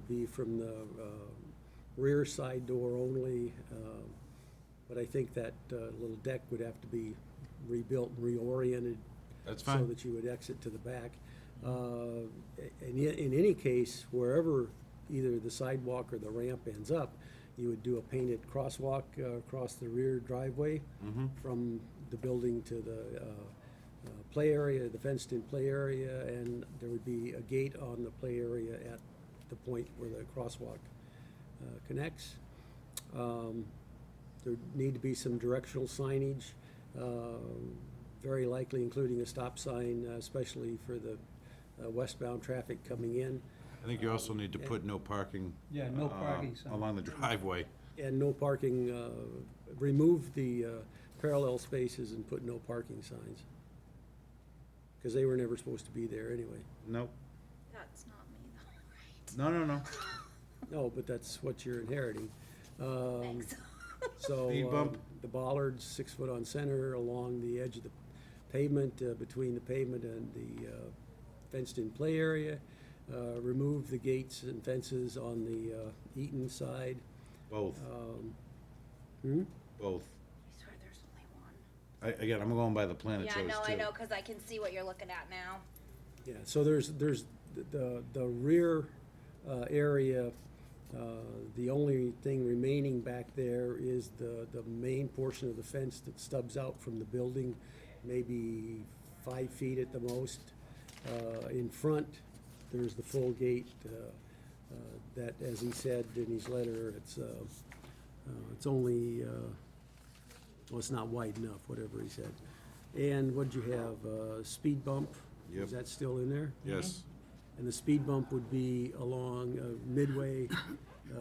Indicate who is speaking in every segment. Speaker 1: be from the um, rear side door only. um, But I think that uh, little deck would have to be rebuilt and reoriented.
Speaker 2: That's
Speaker 1: So
Speaker 2: fine.
Speaker 1: that you would exit to the back. Uh, And yet, in any case, wherever either the sidewalk or the ramp ends up, you would do a painted crosswalk uh, across the rear driveway from the building to the uh, uh, play area, the fenced-in play area, and there would be a gate on the play area at the point where the crosswalk uh, connects. Um, There need to be some directional signage, um, very likely including a stop sign, uh, especially for the uh, westbound traffic coming in,
Speaker 2: I think you also need to put no parking.
Speaker 3: Yeah, no
Speaker 2: uh,
Speaker 3: parking sign.
Speaker 2: Along the driveway.
Speaker 1: and no parking, uh, remove the uh, parallel spaces and put no parking signs, because they were never supposed to be there anyway.
Speaker 2: Nope.
Speaker 4: That's not me
Speaker 2: No,
Speaker 4: though,
Speaker 2: no, no.
Speaker 1: No, but that's what you're inheriting. Um,
Speaker 4: right? Thanks.
Speaker 1: So.
Speaker 2: Speed
Speaker 1: uh,
Speaker 2: bump.
Speaker 1: The bollards, six foot on center, along the edge of the pavement, uh, between the pavement and the uh, fenced-in play area. Uh, Remove the gates and fences on the uh, Eaton side.
Speaker 2: Both,
Speaker 5: Oh.
Speaker 1: Um, hmm?
Speaker 2: both.
Speaker 4: I swear there's only one.
Speaker 2: I, again, I'm going by the plan it shows
Speaker 4: Yeah,
Speaker 2: too.
Speaker 4: no, I know, cause I can see what you're looking at now.
Speaker 1: Yeah, so there's, there's the- the, the rear uh, area, uh, the only thing remaining back there is the, the main portion of the fence that stubs out from the building, maybe five feet at the most. Uh, In front, there's the full gate uh, uh, that, as he said in his letter, it's, uh, uh, it's only, uh, well, it's not wide enough, whatever he said. And what'd you have, uh, speed bump?
Speaker 2: Yep.
Speaker 1: Is that still in there?
Speaker 2: Yes,
Speaker 1: And the speed bump would be along uh, midway, uh,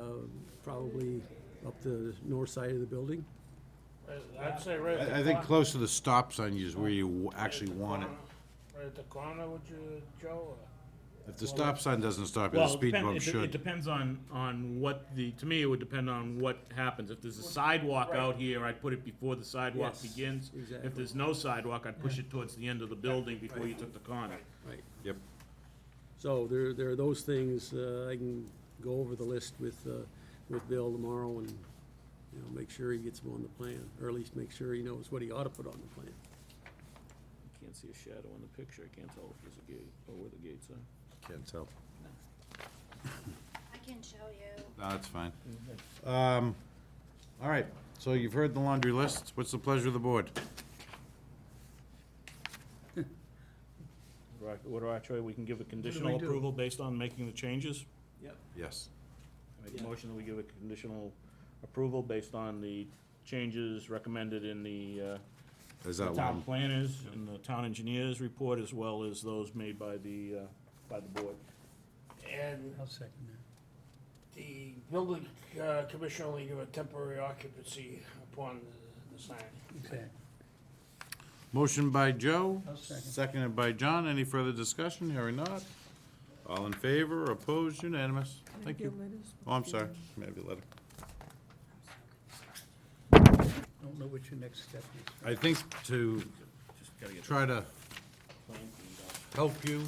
Speaker 1: probably up the north side of the building?
Speaker 6: I'd say right
Speaker 5: Mm-hmm.
Speaker 2: I,
Speaker 6: at the corner.
Speaker 2: I think close to the stop sign is where you w-
Speaker 6: right at
Speaker 2: actually
Speaker 6: the
Speaker 2: want it.
Speaker 6: corner. Right at the corner, would you, Joe? uh, or-
Speaker 2: If the stop sign doesn't stop you,
Speaker 5: Well,
Speaker 2: the
Speaker 5: it
Speaker 2: speed
Speaker 5: depend-
Speaker 2: bump
Speaker 5: it de- It
Speaker 2: should.
Speaker 5: depends on, on what the, to me, it would depend on what happens. If there's a sidewalk out here, I'd put it before the sidewalk
Speaker 1: Yes,
Speaker 5: begins.
Speaker 1: exactly.
Speaker 5: If there's no sidewalk, I'd push it towards the end of the building before you took the corner.
Speaker 1: Right.
Speaker 2: Yep.
Speaker 1: So there, there are those things, uh, I can go over the list with, uh, with Bill tomorrow and, you know, make sure he gets them on the plan, or at least make sure he knows what he ought to put on the plan.
Speaker 5: Can't see a shadow in the picture. I can't tell if there's a gate or where the gates are.
Speaker 2: Can't tell.
Speaker 4: I can show you.
Speaker 2: No, that's fine.
Speaker 5: Mm-hmm.
Speaker 2: Um, all right, so you've heard the laundry list. What's the pleasure of the board?
Speaker 5: What are our choice? We can give a
Speaker 3: we
Speaker 5: conditional
Speaker 3: do?
Speaker 5: approval based on making the changes?
Speaker 1: Yep.
Speaker 2: Yes.
Speaker 5: I Make a motion that we give a conditional approval based on the changes recommended in the, uh,
Speaker 2: Is
Speaker 5: the
Speaker 2: that
Speaker 5: town
Speaker 2: one?
Speaker 5: planners and the town engineers report, as well as those made by the, uh, by the board.
Speaker 6: And
Speaker 3: I'll second that.
Speaker 6: the building uh, commissioner only give a temporary occupancy upon the sign.
Speaker 3: Exactly.
Speaker 2: Motion by Joe,
Speaker 3: I'll second.
Speaker 2: seconded by John. Any further discussion? Hearing not. All in favor, opposed, unanimous. Thank you. Oh, I'm sorry. Maybe a letter.
Speaker 3: Don't know what your next step is.
Speaker 2: I think to try to help you,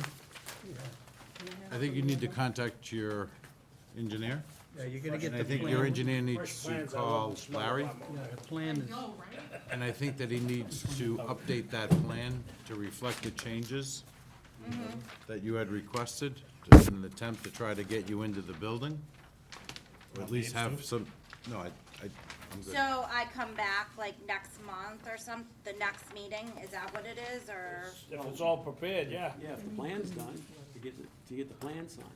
Speaker 2: I think you need to contact your engineer.
Speaker 3: Yeah, you're gonna get
Speaker 2: And
Speaker 3: the
Speaker 2: I
Speaker 3: plan.
Speaker 2: think your engineer
Speaker 6: Fresh
Speaker 2: needs to
Speaker 6: plans, I love
Speaker 2: call
Speaker 6: the smell of
Speaker 2: Larry,
Speaker 6: lemon.
Speaker 3: Yeah, the plan is,
Speaker 2: and I think that he needs to update that plan to reflect the changes that you had requested, in an attempt to try to get you into the building. Or at least have some, no, I, I, I'm good.
Speaker 4: So I come back like next month or some, the next meeting, is that what it is, or?
Speaker 6: If it's all prepared, yeah.
Speaker 7: Yeah, if the plan's done, to get, the- to get the plan signed.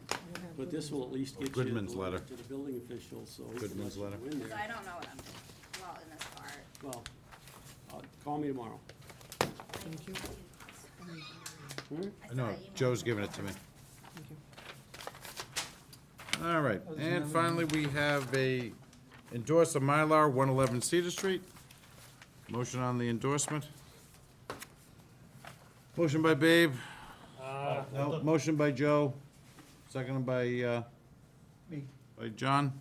Speaker 7: But this will at least
Speaker 2: Or
Speaker 7: get you the
Speaker 2: Goodman's letter.
Speaker 7: letter to the building official, so. we can
Speaker 2: Goodman's
Speaker 7: let
Speaker 2: letter.
Speaker 7: you in
Speaker 4: So
Speaker 7: there.
Speaker 4: I don't know what I'm, doing well, in this part.
Speaker 7: Well, uh, call me tomorrow.
Speaker 4: I
Speaker 2: No,
Speaker 4: saw you.
Speaker 2: Joe's giving it to me. All right, and finally, we have a endorse of Mylar, one eleven Cedar Street. Motion on the endorsement. Motion by Babe,
Speaker 6: Uh,
Speaker 2: no, motion by Joe, seconded by, uh,
Speaker 3: me,
Speaker 2: by John.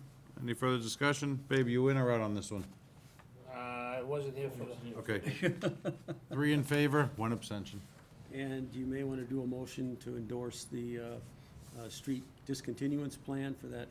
Speaker 2: Any further discussion? Babe, you in or out on this one?
Speaker 6: uh, I wasn't here for the.
Speaker 2: Okay. Three in favor, one abstention.
Speaker 1: And you may want to do a motion to endorse the uh, uh, street discontinuance plan for that